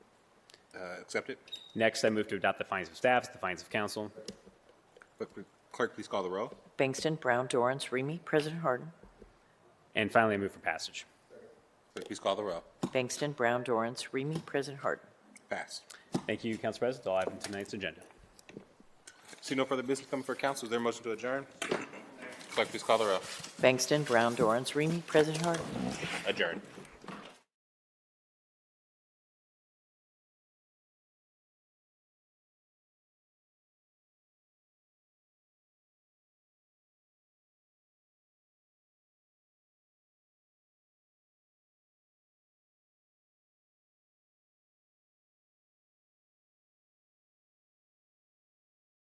uh, accept it. Next, I move to adopt the findings of staff, the findings of council. Clerk- Clerk, please call the row. Bangston, Brown, Dorance, Remy, President Harden. And finally, I move for passage. Clerk, please call the row. Bangston, Brown, Dorance, Remy, President Harden. Passed. Thank you, Council President. All item tonight's agenda. See no further business coming for council. Is there a motion to adjourn? Clerk, please call the row. Bangston, Brown, Dorance, Remy, President Harden. Adjourn.